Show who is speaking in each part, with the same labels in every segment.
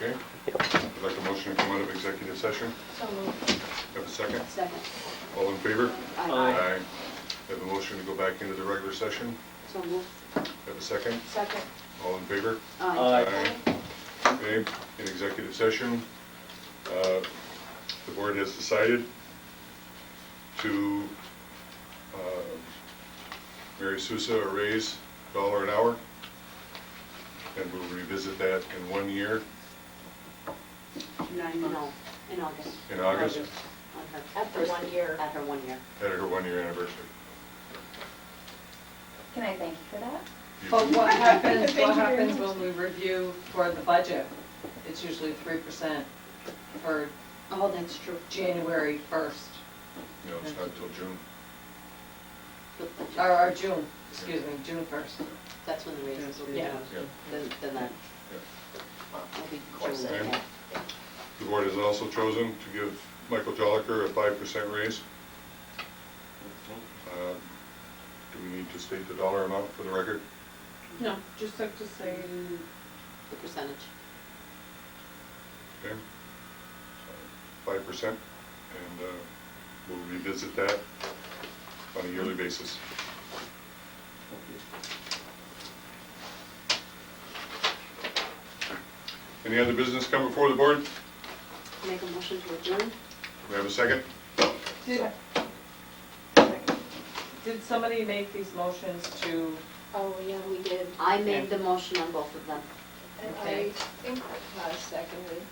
Speaker 1: Okay? I'd like a motion to come out of executive session.
Speaker 2: So moved.
Speaker 1: Have a second?
Speaker 2: Second.
Speaker 1: All in favor?
Speaker 2: Aye.
Speaker 1: Have a motion to go back into the regular session.
Speaker 2: So moved.
Speaker 1: Have a second?
Speaker 2: Second.
Speaker 1: All in favor?
Speaker 2: Aye.
Speaker 1: Okay, in executive session, uh, the board has decided to uh, Mary Sousa a raise dollar an hour, and we'll revisit that in one year.
Speaker 2: Nine months. In August.
Speaker 1: In August.
Speaker 2: On her
Speaker 3: After
Speaker 2: first-
Speaker 3: one year.
Speaker 2: After one year.
Speaker 1: at her one-year anniversary.
Speaker 3: Can I thank you for that?
Speaker 1: You-
Speaker 4: But what happens,
Speaker 3: Thank you
Speaker 4: what
Speaker 3: very
Speaker 4: happens
Speaker 3: much.
Speaker 4: when we review for the budget? It's usually three percent for
Speaker 2: Oh, that's true.
Speaker 4: January first,
Speaker 1: No, it's not until June.
Speaker 4: or, or June, excuse me, June first.
Speaker 2: That's when the raises will be
Speaker 4: Yeah.
Speaker 2: done.
Speaker 1: Yeah.
Speaker 2: Then, then that
Speaker 1: Yeah.
Speaker 2: will be.
Speaker 3: Of course.
Speaker 2: June.
Speaker 1: Okay. The board has also chosen to give Michael Joliker a five percent raise. Uh, Do we need to state the dollar amount for the record?
Speaker 5: No, just have to say,
Speaker 2: The percentage.
Speaker 1: Okay? Five percent, and uh, we'll revisit that on a yearly basis. Any other business come before the board?
Speaker 2: Make a motion to adjourn?
Speaker 1: We have a second?
Speaker 4: Did, did somebody make these motions to,
Speaker 6: Oh, yeah, we did.
Speaker 2: I made the motion on both of them.
Speaker 6: And
Speaker 4: Okay.
Speaker 6: I think I seconded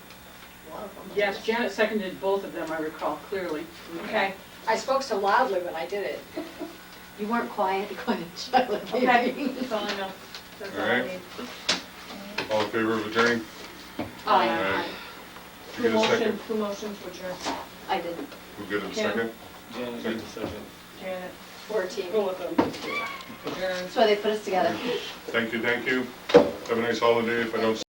Speaker 6: one of them.
Speaker 5: yes, Janet seconded both of them, I recall clearly.
Speaker 4: okay,
Speaker 6: I spoke so loudly when I did it.
Speaker 2: You weren't quiet, quiet, Charlotte.
Speaker 4: okay, that's all I know, that's all
Speaker 1: All right.
Speaker 4: I need.
Speaker 1: All in favor of adjourning?
Speaker 2: Aye.
Speaker 1: Did you
Speaker 4: Who
Speaker 1: get a
Speaker 4: motioned,
Speaker 1: second?
Speaker 4: who motioned to adjourn?
Speaker 2: I did.
Speaker 1: We'll get a
Speaker 4: Kim?
Speaker 1: second.
Speaker 7: Janet made the second.
Speaker 4: Janet,
Speaker 6: Fourteen.
Speaker 5: Go with them.
Speaker 4: adjourn.
Speaker 2: That's why they put us together.
Speaker 1: Thank you, thank you. Have a nice holiday if I don't